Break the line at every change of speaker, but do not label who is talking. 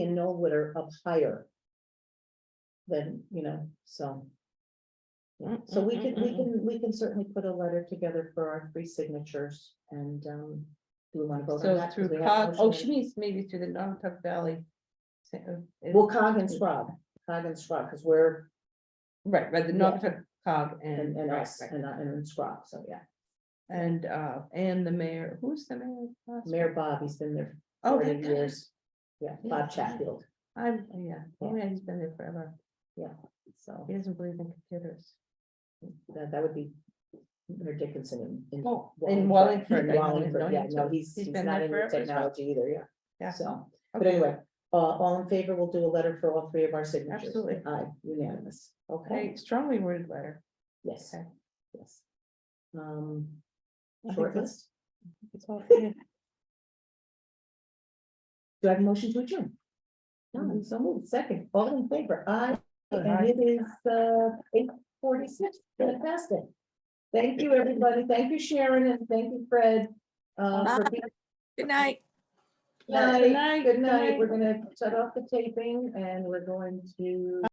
that are up higher. Than, you know, so,
Mm,
so
Mm-hmm,
we can, we can, we can certainly put a letter together for our three signatures and, um. Do we want to vote on
So
that? 'Cause
through
we have a
COG, oh,
motion.
she means maybe through the Nantucket Valley. Sa- uh, it-
Well, cog and scrub, cog and scrub, because we're,
Right, right, the
yeah.
Nantucket COG and.
and, and
right,
us,
right.
and, uh, and scrub, so yeah.
And, uh, and the mayor, who's the mayor? of Glasgow?
Mayor Bob, he's been there
Oh,
forty
that guy.
years. Yeah,
Yeah.
Bob Chatfield,
I'm, yeah,
Yeah.
yeah, he's been there forever.
so
He doesn't believe in computers.
that, that would be Mayor Dickinson in.
Oh,
in
in Wallingford.
In
I know
Wallingford,
him,
yeah, no,
so
he's, he's
been
not
there
in the
forever as well.
technology either, yeah,
Yeah.
so, but
Okay.
anyway, uh, all in favor, we'll do a letter for all three of our signatures.
Absolutely.
Aye, unanimous, okay,
A strongly worded letter.
yes,
Okay.
yes. Um,
I think
shortlist,
that's- that's all-
do I have a motion to adjourn? No, so moved, second, all in favor, aye, and it is, uh, eight forty-six, fantastic. Thank you, everybody, thank you, Sharon, and thank you, Fred, uh, for being
Good night.
Night,
night,
good
good
night.
night.
We're gonna shut off the taping and we're going to.